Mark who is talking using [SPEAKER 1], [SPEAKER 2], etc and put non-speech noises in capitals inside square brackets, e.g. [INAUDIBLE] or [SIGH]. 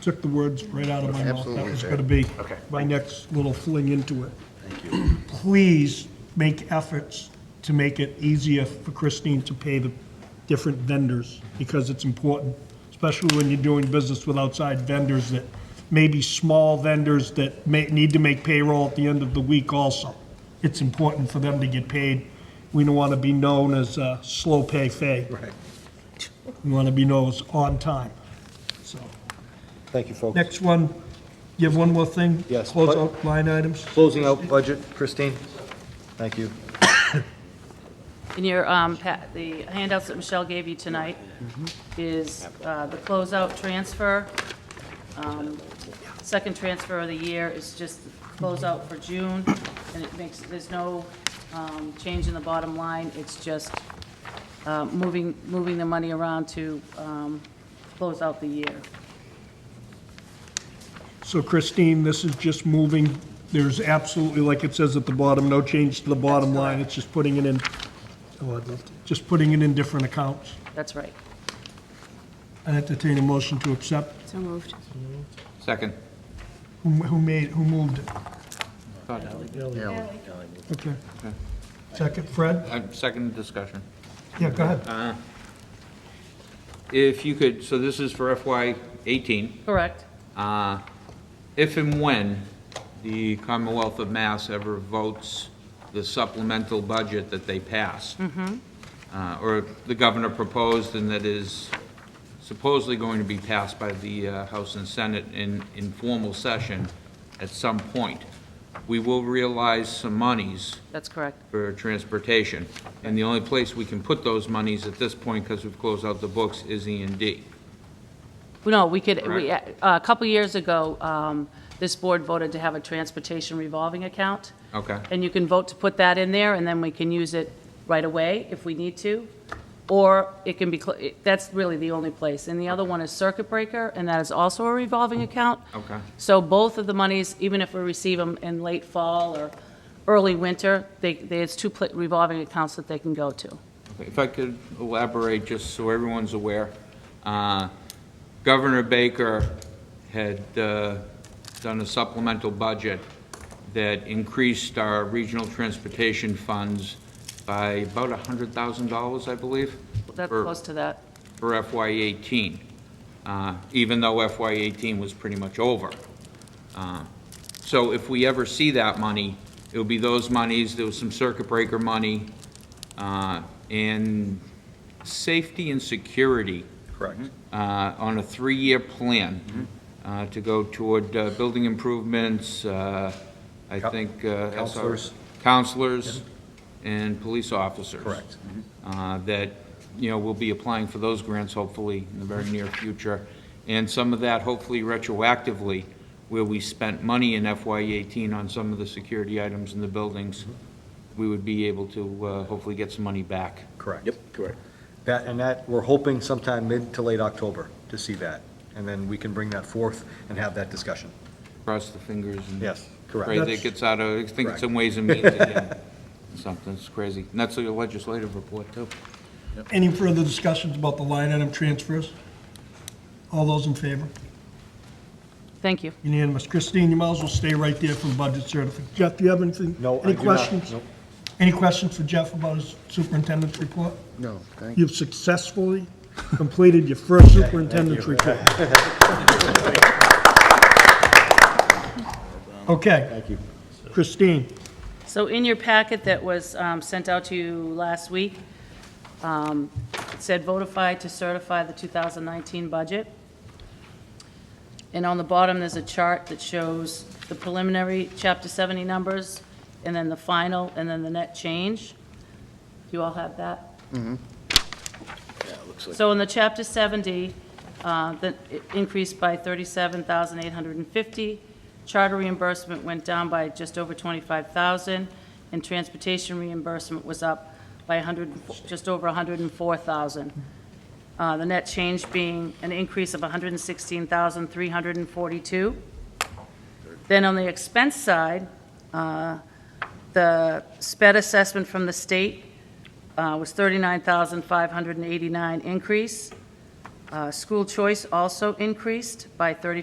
[SPEAKER 1] took the words right out of my mouth. That
[SPEAKER 2] Absolutely,
[SPEAKER 1] was
[SPEAKER 2] sir.
[SPEAKER 1] going to be
[SPEAKER 3] Okay.
[SPEAKER 1] my next little fling into it.
[SPEAKER 2] Thank you.
[SPEAKER 1] [CLEARS THROAT] Please make efforts to make it easier for Christine to pay the different vendors, because it's important, especially when you're doing business with outside vendors that may be small vendors that may, need to make payroll at the end of the week also. It's important for them to get paid. We don't want to be known as uh, slow pay fay.
[SPEAKER 2] Right.
[SPEAKER 1] We want to be known as on time, so.
[SPEAKER 2] Thank you, folks.
[SPEAKER 1] Next one, you have one more thing?
[SPEAKER 2] Yes.
[SPEAKER 1] Close out line items?
[SPEAKER 2] Closing out budget, Christine. Thank you.
[SPEAKER 4] In your, um, pa- the handouts that Michelle gave you tonight is uh, the closeout transfer. Um, Second transfer of the year is just closeout for June, and it makes, there's no um, change in the bottom line. It's just uh, moving, moving the money around to um, close out the year.
[SPEAKER 1] So Christine, this is just moving, there's absolutely, like it says at the bottom, no change to the bottom line, it's just putting it in, oh, I'd love to, just putting it in different accounts.
[SPEAKER 4] That's right.
[SPEAKER 1] I entertain a motion to accept.
[SPEAKER 4] So moved.
[SPEAKER 5] Second.
[SPEAKER 1] Who who made, who moved it? Okay. Second, Fred?
[SPEAKER 5] Uh, Second discussion.
[SPEAKER 1] Yeah, go ahead.
[SPEAKER 5] If you could, so this is for FY '18.
[SPEAKER 4] Correct.
[SPEAKER 5] uh, If and when the Commonwealth of Mass ever votes the supplemental budget that they pass, uh, or the governor proposed and that is supposedly going to be passed by the uh, House and Senate in informal session at some point, we will realize some monies
[SPEAKER 4] That's correct.
[SPEAKER 5] for transportation. And the only place we can put those monies at this point, because we've closed out the books, is E and D.
[SPEAKER 4] No, we could, we, uh, a couple years ago, um, this board voted to have a transportation revolving account.
[SPEAKER 5] Okay.
[SPEAKER 4] And you can vote to put that in there, and then we can use it right away if we need to. Or it can be, cl- it- that's really the only place. And the other one is circuit breaker, and that is also a revolving account.
[SPEAKER 5] Okay.
[SPEAKER 4] So both of the monies, even if we receive them in late fall or early winter, they, there's two pla- revolving accounts that they can go to.
[SPEAKER 5] If I could elaborate, just so everyone's aware, uh, Governor Baker had uh, done a supplemental budget that increased our regional transportation funds by about $100,000, I believe.
[SPEAKER 4] That's
[SPEAKER 5] for-
[SPEAKER 4] close to that.
[SPEAKER 5] for FY '18, uh, even though FY '18 was pretty much over. Uh, So if we ever see that money, it'll be those monies, there was some circuit breaker money, uh, and safety and security.
[SPEAKER 2] Correct.
[SPEAKER 5] uh, On a three-year plan uh, to go toward uh, building improvements, uh, I
[SPEAKER 2] Cou-
[SPEAKER 5] think. uh, SR
[SPEAKER 2] counselors.
[SPEAKER 5] Counselors and police officers
[SPEAKER 2] Correct.
[SPEAKER 5] uh, that, you know, we'll be applying for those grants hopefully in the very near future. And some of that hopefully retroactively, where we spent money in FY eighteen on some of the security items in the buildings, we would be able to uh, hopefully get some money back.
[SPEAKER 2] Correct. Yep, correct. That, and that, we're hoping sometime mid to late October to see that. And then we can bring that forth and have that discussion.
[SPEAKER 5] Cross the fingers and.
[SPEAKER 2] Yes,
[SPEAKER 5] Pray
[SPEAKER 2] correct.
[SPEAKER 5] that it gets out of, I think
[SPEAKER 2] Correct.
[SPEAKER 5] it's in ways and
[SPEAKER 2] [LAUGHS]
[SPEAKER 5] means again. Something, it's crazy. And that's a legislative report too.
[SPEAKER 1] Any further discussions about the line item transfers? All those in favor?
[SPEAKER 4] Thank you.
[SPEAKER 1] Unanimous. Christine, you might as well stay right there for the budget certificate. Jeff, do you have anything?
[SPEAKER 2] No, I
[SPEAKER 1] Any
[SPEAKER 2] do not.
[SPEAKER 1] questions?
[SPEAKER 2] Nope.
[SPEAKER 1] Any questions for Jeff about his superintendent's report?
[SPEAKER 2] No, thank
[SPEAKER 1] You've successfully completed your first superintendent's report.
[SPEAKER 2] [LAUGHS]
[SPEAKER 1] Okay,
[SPEAKER 2] Thank you.
[SPEAKER 1] Christine,
[SPEAKER 4] So in your packet that was um, sent out to you last week, um, it said votify to certify the 2019 budget. And on the bottom, there's a chart that shows the preliminary Chapter 70 numbers, and then the final, and then the net change. Do you all have that? So in the Chapter 70, uh, the- it increased by 37,850. Charter reimbursement went down by just over 25,000, and transportation reimbursement was up by 100, just over 104,000. Uh, The net change being an increase of 116,342. Then on the expense side, uh, the sped assessment from the state uh, was 39,589 increase. Uh, School choice also increased by 35.